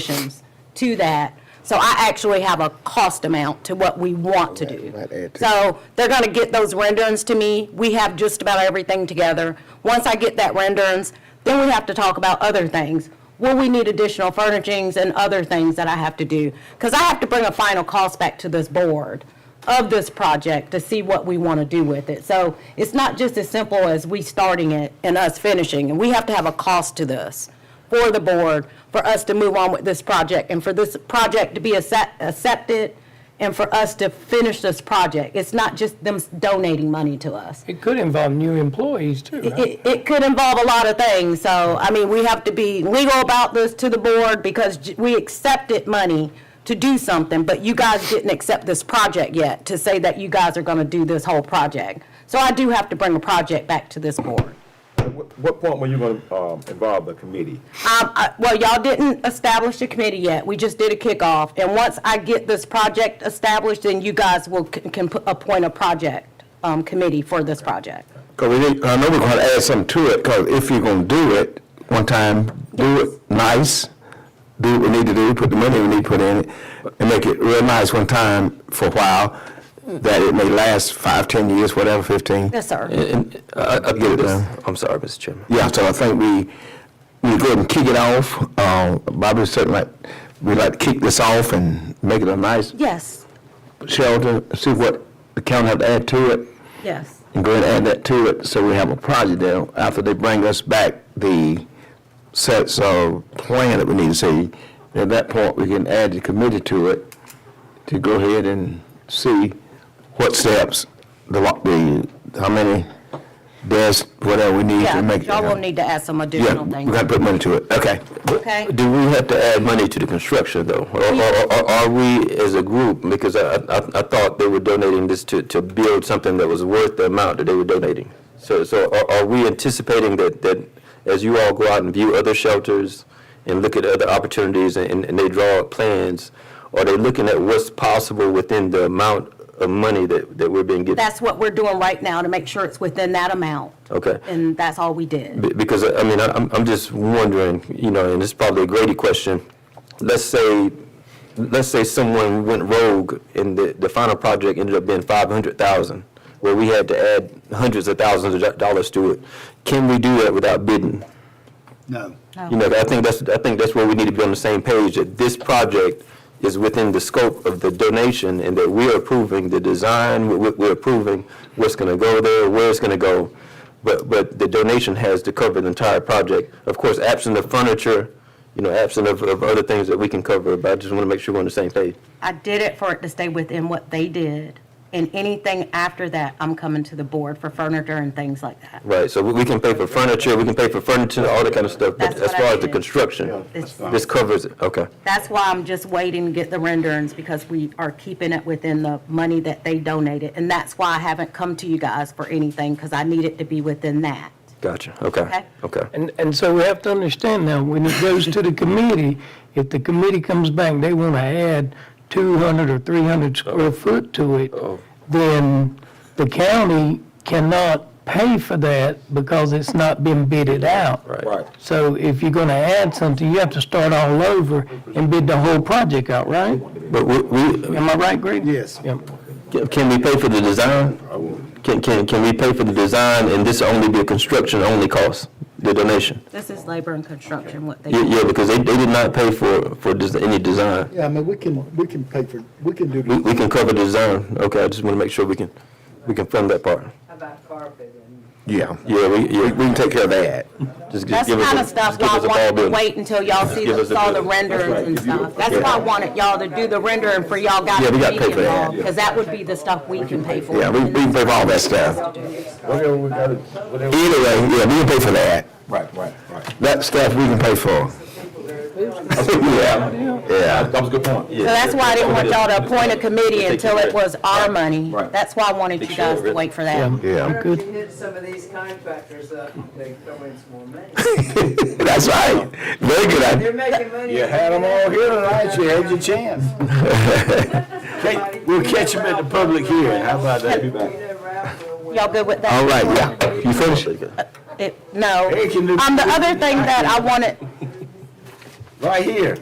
additions to that. So I actually have a cost amount to what we want to do. Right, right, add to- So they're going to get those renderings to me. We have just about everything together. Once I get that renderings, then we have to talk about other things. Will we need additional furnishings and other things that I have to do? Because I have to bring a final cost back to this board of this project to see what we want to do with it. So it's not just as simple as we starting it and us finishing. And we have to have a cost to this for the board, for us to move on with this project, and for this project to be accept- accepted, and for us to finish this project. It's not just them donating money to us. It could involve new employees too, right? It, it could involve a lot of things, so, I mean, we have to be legal about this to the board, because j- we accepted money to do something, but you guys didn't accept this project yet, to say that you guys are gonna do this whole project. So I do have to bring a project back to this board. What what point were you going to involve the committee? Um, I- well, y'all didn't establish a committee yet. We just did a kickoff. And once I get this project established, then you guys will, can can put- appoint a project, um, committee for this project. Because we need, I know we're going to add something to it, because if you're going to do it, one time, do it nice, do what we need to do, put the money we need to put in it, and make it real nice one time for a while, that it may last five, ten years, whatever, fifteen. Uh, Yes, sir. And I, I Get it think this, done. I'm sorry, Mr. Chairman. Yeah, so I think we, we go ahead and kick it off. Uh, Bobby said like, we'd like to kick this off and make it a nice Yes, shelter, see what the county have to add to it. yes. and go ahead and add that to it, so we have a project there. After they bring us back the sets of plan that we need to see, at that point, we can add the committee to it to go ahead and see what steps, the, lo- the, how many desks, whatever we need Yeah, to make. it y'all will happen. need to add some Yeah, additional we things. gotta put money to it, okay. Okay. Do we have to add money to the construction though? Or, or, or are we as a group, because I, I, I thought they were donating this to, to build something that was worth the amount that they were donating. So, so are, are we anticipating that, that as you all go out and view other shelters and look at other opportunities and, and they draw up plans, are they looking at what's possible within the amount of money that, that we're being given? That's what we're doing right now to make sure it's within that amount. Okay. And that's all we did. Be- Because, I mean, I- I'm, I'm just wondering, you know, and it's probably a Grady question. Let's say, let's say someone went rogue and the, the final project ended up being five hundred thousand, where we had to add hundreds of thousands of do- dollars to it. Can we do that without bidding? No. You Oh. know, I think that's, I think that's where we need to be on the same page, that this project is within the scope of the donation and that we're approving the design, we- we- we're approving what's going to go there, where it's going to go. But, but the donation has to cover the entire project. Of course, absent of furniture, you know, absent of, of other things that we can cover, but I just want to make sure we're on the same page. I did it for it to stay within what they did. And anything after that, I'm coming to the board for furniture and things like that. Right, so we- we can pay for furniture, we can pay for furniture, all that kind of stuff, but That's as what I far as the mean. construction, It's- this covers it, okay. That's why I'm just waiting to get the renderings, because we are keeping it within the money that they donated. And that's why I haven't come to you guys for anything, because I need it to be within that. Gotcha, okay, Okay. okay. And, and so we have to understand now, when it goes to the committee, if the committee comes back, they want to add 200 or 300 square foot to it, then the county cannot pay for that because it's not been bidded out. Right. So if you're going to add something, you have to start all over and bid the whole project out, right? But we, we, Am I right, Greg? Yes. Yeah. Can- Can we pay for the design? Can, can, can we pay for the design and this only be a construction-only cost, the donation? This is labor and construction, what they. Yeah, yeah, because they, they did not pay for, for des- any design. Yeah, I mean, we can, we can pay for, we can do We, the we can cover design, okay, I just want to make sure we can, we can fund that part. Yeah. Yeah, we, We, yeah. we can take care of that. just- just That's give us kind a- of stuff just give y'all us a wanted ball to building. wait until y'all see, Give the- us a saw the bill. That's renderings and stuff. That's why I wanted y'all to do the rendering for y'all guys Yeah, to we be gotta pay for that, involved, because that would be the stuff we can pay for. Yeah, we, we can pay for all that stuff. Whatever we got to, whatever. Either way, yeah, we can pay for that. Right, right, right. That stuff we can pay for. Yeah, yeah. That was a good point. So that's why I didn't want y'all to appoint a committee Take until it was our money. Right. That's why I wanted you sure guys to it- wait for that. Yeah. Why don't you hit some of these contractors up, they throw in some more money. That's right. Very good idea. They're making money. You had them all here tonight, you had your chance. We'll catch them at the public hearing, how about that? Y'all good with that? All right, yeah. You finished? It- No. Hey, can you- Um, the other thing that I wanted, Right here.